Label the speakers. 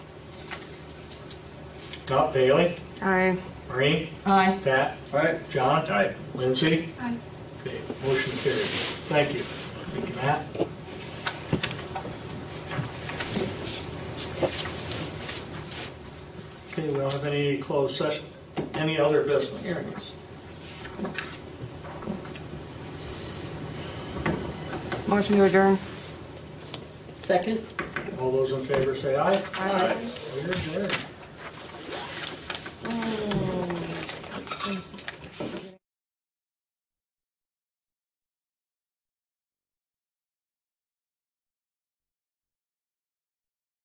Speaker 1: Not Bailey,
Speaker 2: Aye.
Speaker 1: Maureen,
Speaker 3: Aye.
Speaker 1: Pat,
Speaker 4: Aye.
Speaker 1: John. Lindsay.
Speaker 5: Aye.
Speaker 1: Okay, motion carried. Thank you. Thank you, Matt. Okay, we don't have any closed session, any other business?
Speaker 3: Here it is.
Speaker 2: Motion to adjourn.
Speaker 3: Second?
Speaker 1: All those in favor say aye.
Speaker 3: Aye.
Speaker 1: We're adjourned.